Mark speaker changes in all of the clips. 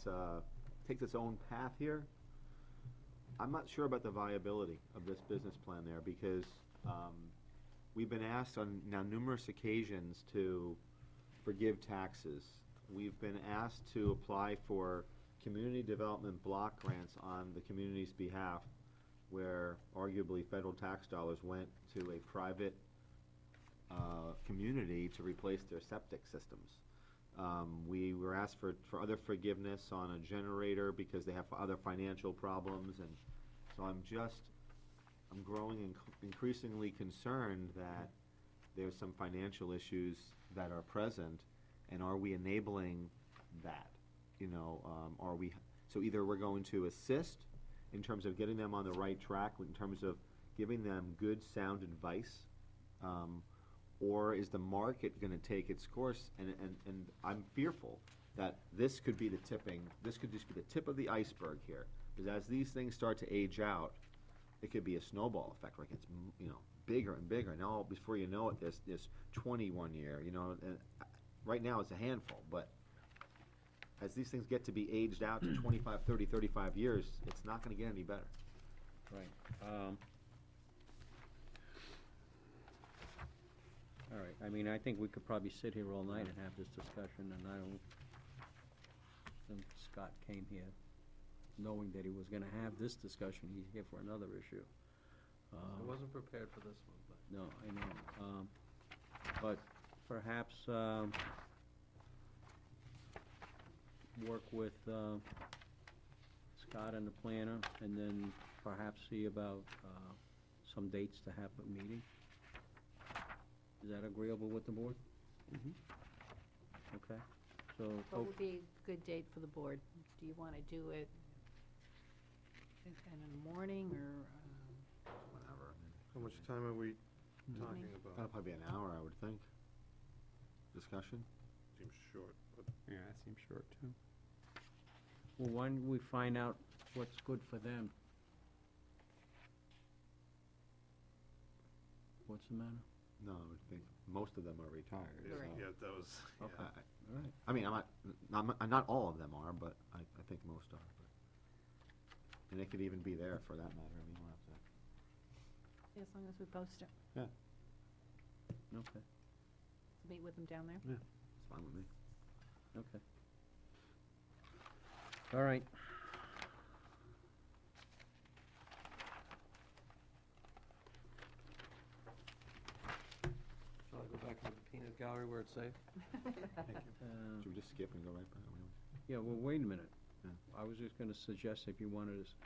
Speaker 1: it's, uh, takes its own path here. I'm not sure about the viability of this business plan there, because, um, we've been asked on now numerous occasions to forgive taxes. We've been asked to apply for community development block grants on the community's behalf, where arguably federal tax dollars went to a private, uh, community to replace their septic systems. Um, we were asked for, for other forgiveness on a generator because they have other financial problems, and so I'm just, I'm growing inc- increasingly concerned that there's some financial issues that are present, and are we enabling that? You know, um, are we, so either we're going to assist in terms of getting them on the right track, in terms of giving them good, sound advice, um, or is the market gonna take its course? And, and, and I'm fearful that this could be the tipping, this could just be the tip of the iceberg here. Because as these things start to age out, it could be a snowball effect, like it's, m- you know, bigger and bigger, and all, before you know it, there's, there's twenty-one year, you know, and I- right now it's a handful, but as these things get to be aged out to 25, 30, 35 years, it's not gonna get any better.
Speaker 2: Right, um. All right, I mean, I think we could probably sit here all night and have this discussion, and I don't think Scott came here knowing that he was gonna have this discussion, he's here for another issue.
Speaker 3: I
Speaker 2: Um,
Speaker 3: wasn't prepared for this one, but.
Speaker 2: No, I know, um, but perhaps, um, work with, uh, Scott and the planner, and then perhaps see about, uh, some dates to have a meeting. Is that agreeable with the board? Okay, so,
Speaker 4: What
Speaker 2: hope-
Speaker 4: would be a good date for the board? Do you want to do it in in the morning or? uh,
Speaker 1: Whatever.
Speaker 3: How much time are we
Speaker 4: talking
Speaker 1: That'll probably be an hour, I would think. Discussion?
Speaker 3: Seems short, but.
Speaker 5: Yeah, that seems short too.
Speaker 2: well, why don't we find out what's good for them? What's the matter?
Speaker 1: No, I would think most of them are retired.
Speaker 4: Yeah, Right.
Speaker 1: so-
Speaker 3: Yeah, that was, yeah.
Speaker 1: I- I-
Speaker 2: All right.
Speaker 1: I mean, I'm not, not, mu- not all of them are, but I, I think most are. but- And they could even be there for that matter, I mean, we'll have to.
Speaker 4: As long as we post it,
Speaker 2: Okay.
Speaker 4: meet with them down there.
Speaker 1: It's fine with me.
Speaker 2: Okay. All right.
Speaker 3: Shall I go back to the peanut gallery where it's safe?
Speaker 2: uh,
Speaker 1: Should we just skip and go right back? I mean,
Speaker 2: Yeah, well, wait a minute.
Speaker 1: Yeah.
Speaker 2: I was just gonna suggest if you wanted to, s-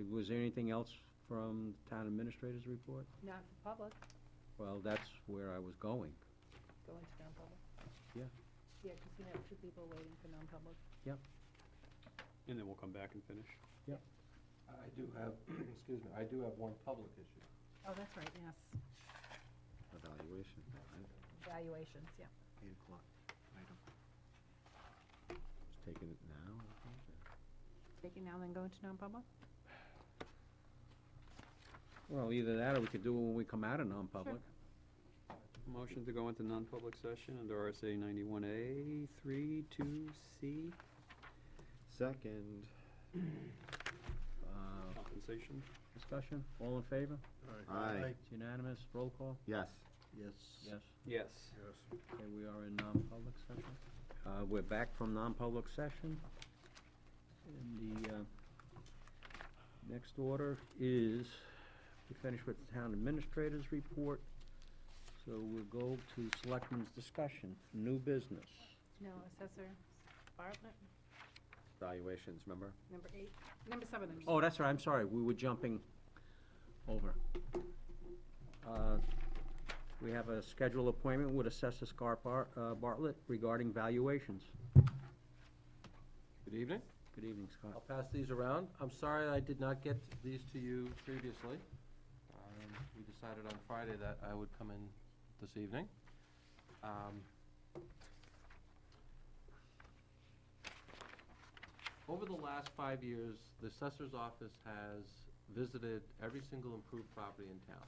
Speaker 2: eh, was there anything else from the town administrator's report?
Speaker 4: Not for public,
Speaker 2: Well, that's where I was going.
Speaker 4: go into non-public.
Speaker 2: Yeah.
Speaker 4: Yeah, because you have two people waiting for non-public.
Speaker 5: And then we'll come back and finish.
Speaker 3: I do have, excuse me, I do have one public issue.
Speaker 4: Oh, that's right, yes.
Speaker 1: Evaluation, right?
Speaker 4: Valuations, yeah.
Speaker 1: Eight o'clock, item. Just taking it now, I think, or-
Speaker 4: Taking now then go into non-public?
Speaker 2: Well, either that or we could do it when we come out of non-public.
Speaker 5: Motion to go into non-public session under RSA ninety-one A, three, two, C,
Speaker 1: Second.
Speaker 2: Uh,
Speaker 5: compensation.
Speaker 2: Discussion, all in favor?
Speaker 1: Aye.
Speaker 2: It's unanimous, roll call?
Speaker 1: Yes.
Speaker 2: Yes.
Speaker 5: Yes.
Speaker 3: Yes.
Speaker 2: Okay, we are in non-public session. Uh, we're back from non-public session. And the, uh, next order is, we finished with the town administrator's report. So we'll go to selectmen's discussion, new business.
Speaker 4: No, assessor Bartlett,
Speaker 1: Valuations, remember?
Speaker 4: number eight, number seven. there's-
Speaker 2: Oh, that's right, I'm sorry, we were jumping over. Uh, We have a scheduled appointment with Assessor Scar Bar- uh, Bartlett regarding valuations.
Speaker 3: Good evening.
Speaker 2: Good evening, Scott.
Speaker 3: I'll pass these around. I'm sorry I did not get these to you previously. Um, We decided on Friday that I would come in this evening. Um, Over the last five years, the assessor's office has visited every single improved property in town.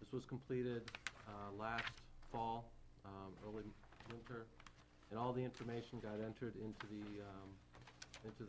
Speaker 3: This was completed uh, last fall, um, early winter, and all the information got entered into the um, into